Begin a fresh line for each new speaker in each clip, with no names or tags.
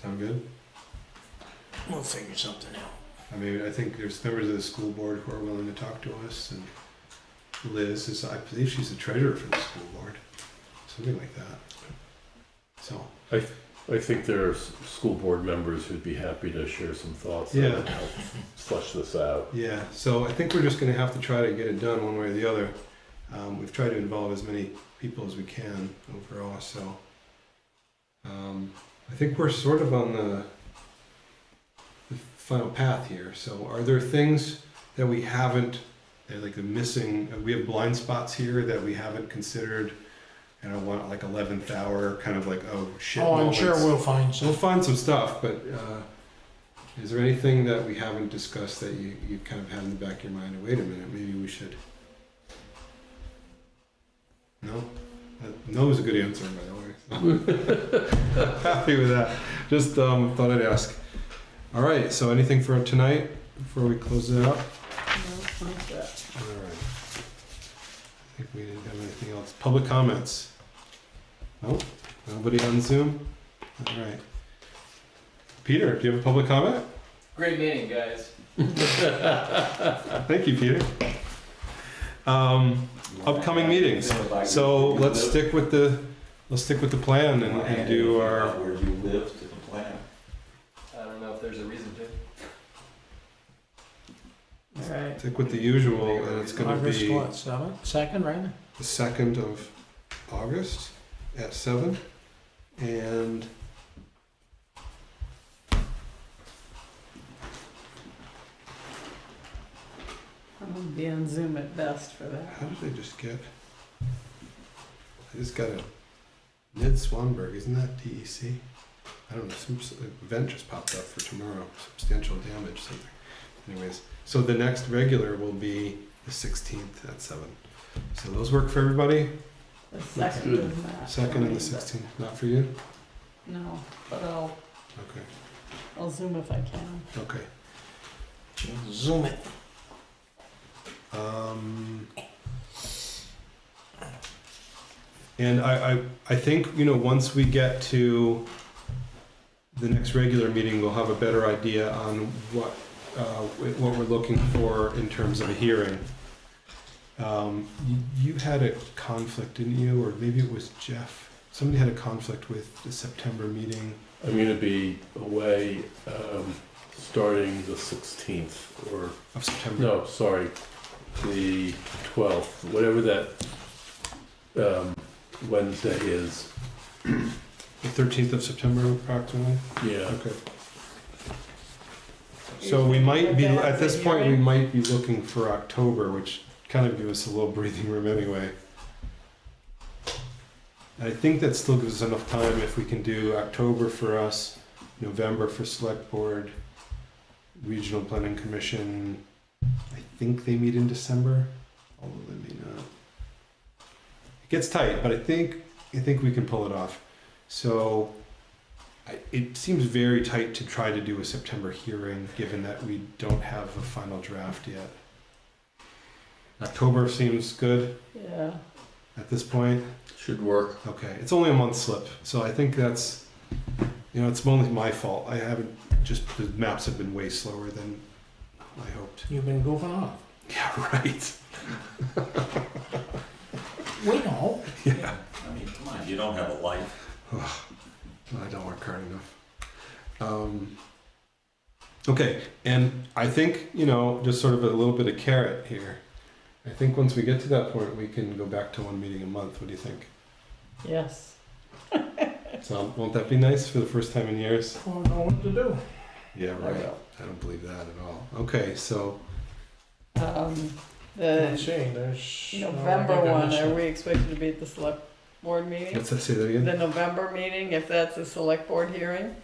sound good?
We'll figure something out.
I mean, I think there's members of the school board who are willing to talk to us, and Liz is, I believe she's the treasurer for the school board, something like that. So,
I think there are s- school board members who'd be happy to share some thoughts
Yeah.
and help flesh this out.
yeah, so I think we're just gonna have to try to get it done one way or the other. Um, we've tried to involve as many people as we can overall, so. Um, I think we're sort of on the, the final path here, so are there things that we haven't, that like the missing, uh, we have blind spots here that we haven't considered? And I want like eleventh hour, kind of like, oh shit.
Oh, I'm sure
moments.
we'll find
Um, We'll
some.
find some stuff, but uh, is there anything that we haven't discussed that you, you kind of had in the back of your mind? Wait a minute, maybe we should. No? That- No is a good answer, by the way. Happy with that. Just um, thought I'd ask. All right, so anything for tonight before we close it up? All right. I think we didn't have anything else. Public comments? Nope. Nobody on Zoom? All right. Peter, do you have a public comment?
Great meeting, guys.
Uh, Thank you, Peter. Um, upcoming meetings. So let's stick with the, let's stick with the plan and, and do our,
Where you live to the plan.
I don't know if there's a reason to.
All right.
stick with the usual and it's gonna
August
be
what, seventh, second, right?
the second of August at seven. And
I'm gonna be on Zoom at best for that.
How did I just get? I just got a Ned Swanberg. Isn't that DEC? I don't know. Some s- event just popped up for tomorrow. Substantial damage, something. Anyways, so the next regular will be the 16th at seven. So those work for everybody.
The second
good.
is not.
Second and the
for me,
16th, not for you.
but- No, but I'll,
Okay.
I'll Zoom if I can.
Okay.
Zoom it.
Um, and I, I, I think, you know, once we get to the next regular meeting, we'll have a better idea on what, uh, wh- what we're looking for in terms of a hearing. Um, you, you had a conflict, didn't you? Or maybe it was Jeff. Somebody had a conflict with the September meeting.
I'm going to be away um, starting the 16th or,
Of September.
no, sorry, the 12th, whatever that um, Wednesday is.
The 13th of September, approximately.
Yeah.
Okay. So we might be, at this point, we might be looking for October, which kind of gives us a little breathing room anyway. I think that still gives us enough time if we can do October for us, November for select board, regional planning commission. I think they meet in December, although they may not. It gets tight, but I think, I think we can pull it off. So I- it seems very tight to try to do a September hearing, given that we don't have a final draft yet. October seems good
Yeah,
at this point.
Should work.
Okay, it's only a month slip, so I think that's, you know, it's only my fault. I haven't, just, the maps have been way slower than I hoped.
You've been goofing off.
Yeah, right.
We know.
Yeah,
I mean, come on, you don't have a life.
I don't work hard enough. Um, okay, and I think, you know, just sort of a little bit of carrot here. I think once we get to that point, we can go back to one meeting a month. What do you think?
yes.
So, won't that be nice for the first time in years?
I don't know what to do.
Yeah, right. I don't believe that at all. Okay, so
Um,
Let's
the
see, there's. no, I
November
think I
one,
missed
are
it.
we expected to be at the select board meeting?
let's let's say that
The
again.
November meeting, if that's a select board hearing?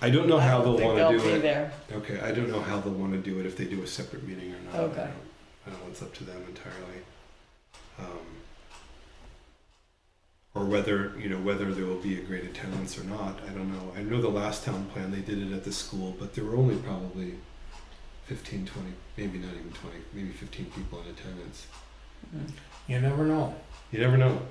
I don't know how
I don't
they'll
think
want to
they'll
do
be
it.
there.
Okay, I don't know how they'll want to do it if they do a separate meeting or not. I
Okay.
don't- I don't know, it's up to them entirely. Um, Or whether, you know, whether there will be a great attendance or not, I don't know. I know the last town plan, they did it at the school, but there were only probably 15, 20, maybe not even 20, maybe 15 people in attendance.
You never know.
You never know.